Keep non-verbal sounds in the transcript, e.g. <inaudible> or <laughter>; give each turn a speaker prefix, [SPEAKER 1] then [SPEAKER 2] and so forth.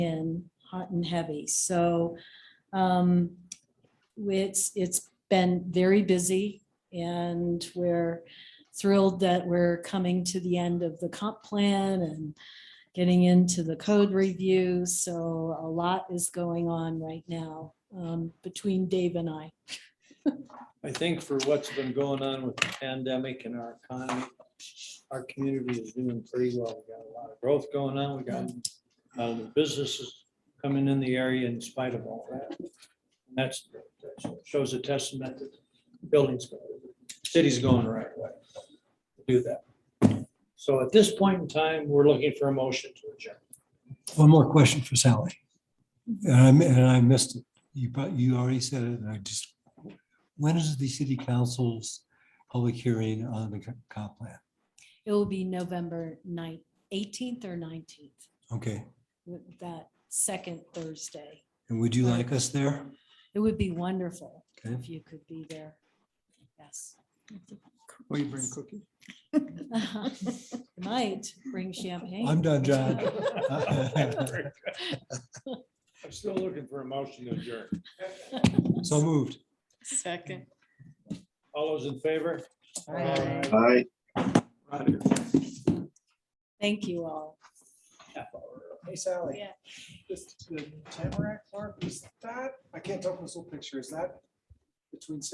[SPEAKER 1] in hot and heavy. So um, it's, it's been very busy and we're thrilled that we're coming to the end of the comp plan and getting into the code review. So a lot is going on right now um, between Dave and I.
[SPEAKER 2] I think for what's been going on with the pandemic and our economy, our community is doing pretty well. We got a lot of growth going on. We got uh, the businesses coming in the area in spite of all that. And That's, that shows a testament that the buildings, city's going the right way. to Do that. So at this point in time, we're looking for a motion to adjourn.
[SPEAKER 3] One more question for Sally. And I, mi- and I missed it. You, prob- you already said it, and I just, when is the city council's public hearing on the co- comp plan?
[SPEAKER 1] It will be November 9th, 18th or 19th,
[SPEAKER 3] Okay,
[SPEAKER 1] with that second Thursday.
[SPEAKER 3] and would you like us there?
[SPEAKER 1] It would be wonderful
[SPEAKER 3] Okay.
[SPEAKER 1] if you could be there. Yes.
[SPEAKER 3] Will you bring cookies?
[SPEAKER 1] <laughs> Might bring champagne.
[SPEAKER 3] I'm done, John. <laughs>
[SPEAKER 2] I'm still looking for a motion to adjourn.
[SPEAKER 3] So moved.
[SPEAKER 1] Second.
[SPEAKER 2] All those in favor?
[SPEAKER 1] Aye.
[SPEAKER 4] Aye.
[SPEAKER 1] Thank you all.
[SPEAKER 5] Hey Sally,
[SPEAKER 1] Yeah.
[SPEAKER 5] this, the Tamarack Park, is that, I can't tell from this little picture, is that between six